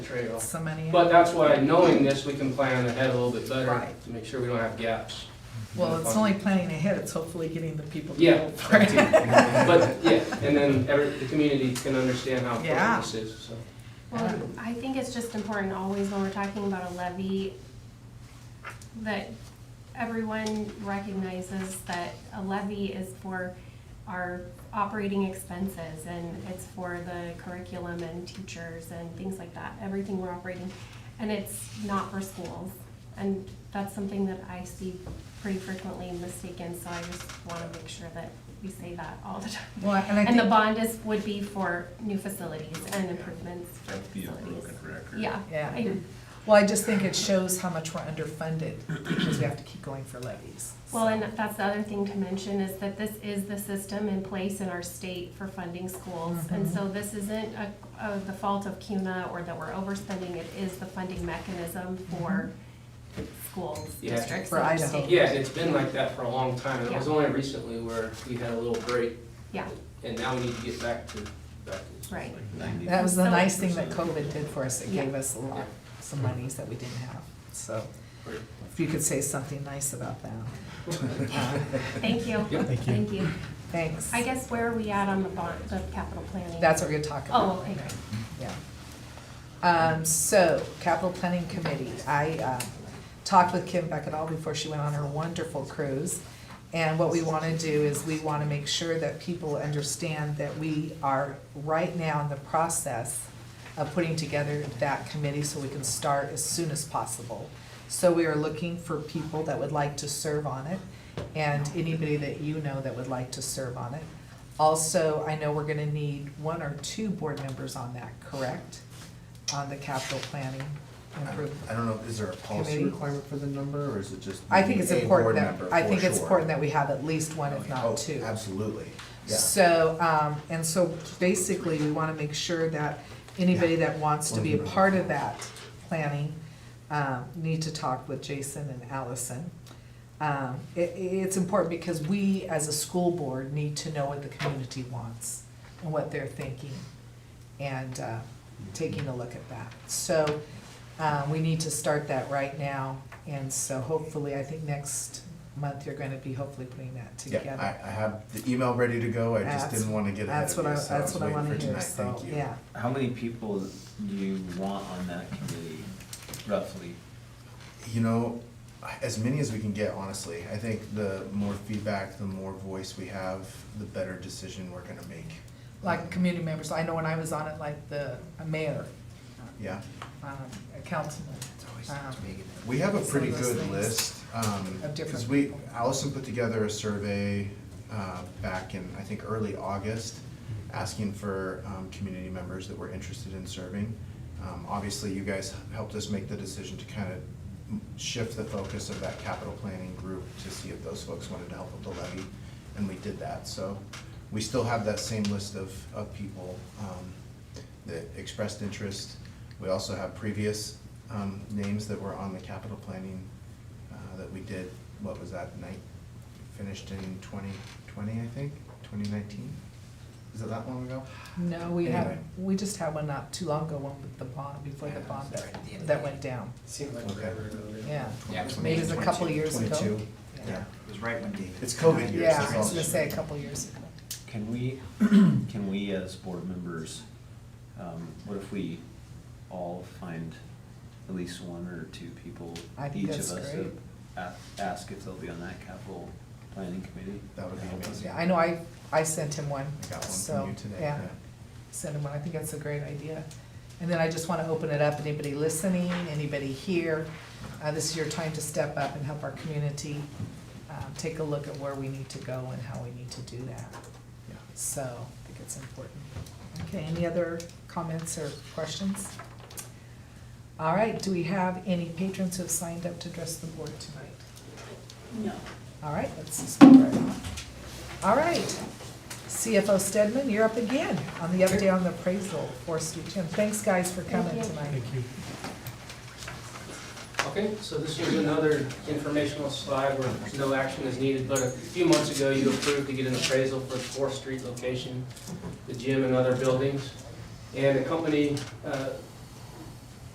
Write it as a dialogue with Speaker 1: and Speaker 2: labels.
Speaker 1: trail.
Speaker 2: so many.
Speaker 3: But that's why, knowing this, we can plan ahead a little bit better
Speaker 2: Right.
Speaker 3: to make sure we don't have gaps.
Speaker 2: Well, it's only planning ahead, it's hopefully getting the people to
Speaker 3: Yeah,
Speaker 2: vote for
Speaker 3: that
Speaker 2: it.
Speaker 3: too. but, yeah, and then every, the community can understand how
Speaker 2: Yeah.
Speaker 3: important this is, so.
Speaker 4: Well, I think it's just important always when we're talking about a levy, that everyone recognizes that a levy is for our operating expenses and it's for the curriculum and teachers and things like that, everything we're operating. And it's not for schools. And that's something that I see pretty frequently mistaken, so I just want to make sure that we say that all the time.
Speaker 2: Well, and I
Speaker 4: And the
Speaker 2: think-
Speaker 4: bond is, would be for new facilities and improvements for
Speaker 5: That'd be a broken
Speaker 4: facilities.
Speaker 5: record.
Speaker 4: Yeah.
Speaker 2: Yeah.
Speaker 4: I-
Speaker 2: Well, I just think it shows how much we're underfunded because we have to keep going for levies.
Speaker 4: Well, and that's the other thing to mention is that this is the system in place in our state for funding schools. And
Speaker 2: Mm-hmm.
Speaker 4: so this isn't a, a, the fault of CUNA or that we're overspending, it is the funding mechanism for schools,
Speaker 3: Yeah.
Speaker 2: Mm-hmm.
Speaker 4: districts.
Speaker 2: For
Speaker 4: and
Speaker 2: Idaho.
Speaker 4: state.
Speaker 3: Yeah, and it's been like that for a long time, and it was only recently where we had a little break,
Speaker 4: Yeah,
Speaker 3: and now we need to get back to, back to.
Speaker 4: right.
Speaker 5: Ninety.
Speaker 2: That was the
Speaker 4: So-
Speaker 2: nice thing that COVID did for us, it
Speaker 4: Yeah.
Speaker 2: gave us a lot, some monies that we didn't have, so. If you could say something nice about that.
Speaker 4: Thank you.
Speaker 3: Yep.
Speaker 4: Thank you. Thank you.
Speaker 2: Thanks.
Speaker 4: I guess where are we at on the bond, the capital planning?
Speaker 2: That's what we're gonna talk about.
Speaker 4: Oh, okay, great.
Speaker 2: Yeah. Um, so, capital planning committee, I, uh, talked with Kim Beckett before she went on her wonderful cruise. And what we wanna do is we wanna make sure that people understand that we are right now in the process of putting together that committee so we can start as soon as possible. So we are looking for people that would like to serve on it and anybody that you know that would like to serve on it. Also, I know we're gonna need one or two board members on that, correct? On the capital planning
Speaker 5: I
Speaker 2: improvement.
Speaker 5: I don't know, is there a policy
Speaker 2: Committee?
Speaker 5: requirement for the number, or is it just?
Speaker 2: I think it's
Speaker 5: a
Speaker 2: important
Speaker 5: board
Speaker 2: that,
Speaker 5: member,
Speaker 2: I
Speaker 5: for
Speaker 2: think it's
Speaker 5: sure?
Speaker 2: important that we have at least one, if
Speaker 5: Oh,
Speaker 2: not two.
Speaker 5: Absolutely, yeah.
Speaker 2: So, um, and so basically, we wanna make sure that anybody that wants to be a part of that planning, um, need to talk with Jason and Allison. Um, it, it's important because we, as a school board, need to know what the community wants and what they're thinking and, uh,
Speaker 5: Mm-hmm.
Speaker 2: taking a look at that. So, uh, we need to start that right now, and so hopefully, I think next month, you're gonna be hopefully putting that together.
Speaker 5: Yeah, I, I have the email ready to go, I just
Speaker 2: That's-
Speaker 5: didn't wanna get ahead
Speaker 2: That's
Speaker 5: of
Speaker 2: what I,
Speaker 5: you, so I
Speaker 2: that's
Speaker 5: was
Speaker 2: what I
Speaker 5: waiting
Speaker 2: wanna
Speaker 5: for
Speaker 2: hear,
Speaker 5: tonight,
Speaker 2: so,
Speaker 5: thank you.
Speaker 2: yeah.
Speaker 6: How many people do you want on that committee, roughly?
Speaker 5: You know, as many as we can get, honestly, I think the more feedback, the more voice we have, the better decision we're gonna make. Um,
Speaker 2: Like community members, I know when I was on it, like the a mayor,
Speaker 5: Yeah,
Speaker 2: um, a councilman. um,
Speaker 5: we have a
Speaker 2: Some
Speaker 5: pretty
Speaker 2: of those
Speaker 5: good
Speaker 2: things
Speaker 5: list, um,
Speaker 2: of different
Speaker 5: cause we,
Speaker 2: people.
Speaker 5: Allison put together a survey, uh, back in, I think, early August, asking for, um, community members that were interested in serving. Um, obviously, you guys helped us make the decision to kind of shift the focus of that capital planning group to see if those folks wanted to help with the levy, and we did that, so we still have that same list of, of people, um, that expressed interest. We also have previous, um, names that were on the capital planning, uh, that we did, what was that night? Finished in twenty twenty, I think, twenty nineteen? Is it that long ago?
Speaker 2: No, we had,
Speaker 5: Anyway.
Speaker 2: we just had one not too long ago, one with the bond, before the bond that, that went down,
Speaker 1: Seemed like
Speaker 5: Okay.
Speaker 1: forever ago. really.
Speaker 2: yeah.
Speaker 6: Yeah, it was
Speaker 2: Maybe it was a couple of years ago.
Speaker 5: 22.
Speaker 2: Yeah.
Speaker 5: Yeah,
Speaker 6: It was right when David.
Speaker 5: It's COVID years,
Speaker 2: Yeah,
Speaker 5: that's
Speaker 2: I was
Speaker 5: all.
Speaker 2: gonna say a couple years ago.
Speaker 6: Can we, can we as board members, um, what if we all find at least one or two people?
Speaker 2: I think
Speaker 6: each of
Speaker 2: that's
Speaker 6: us
Speaker 2: great.
Speaker 6: to a- Ask if they'll be on that capital planning committee?
Speaker 5: That would be
Speaker 6: Help us.
Speaker 5: amazing.
Speaker 2: Yeah, I know I, I sent him one,
Speaker 5: I got one
Speaker 2: so,
Speaker 5: from you today.
Speaker 2: yeah. send them one. I think that's a great idea. And then I just want to open it up, anybody listening, anybody here, uh, this is your time to step up and help our community, um, take a look at where we need to go and how we need to do that.
Speaker 5: Yeah.
Speaker 2: So I think it's important. Okay, any other comments or questions? All right, do we have any patrons who have signed up to address the board tonight?
Speaker 7: No.
Speaker 2: All right, let's just move right on. All right, CFO Stedman, you're up again on the update on the appraisal for Sweet Jim. Thanks, guys, for coming
Speaker 4: Thank you.
Speaker 2: tonight.
Speaker 3: Okay, so this is another informational slide where no action is needed, but a few months ago, you approved to get an appraisal for the Fourth Street location, the gym and other buildings. And the company uh,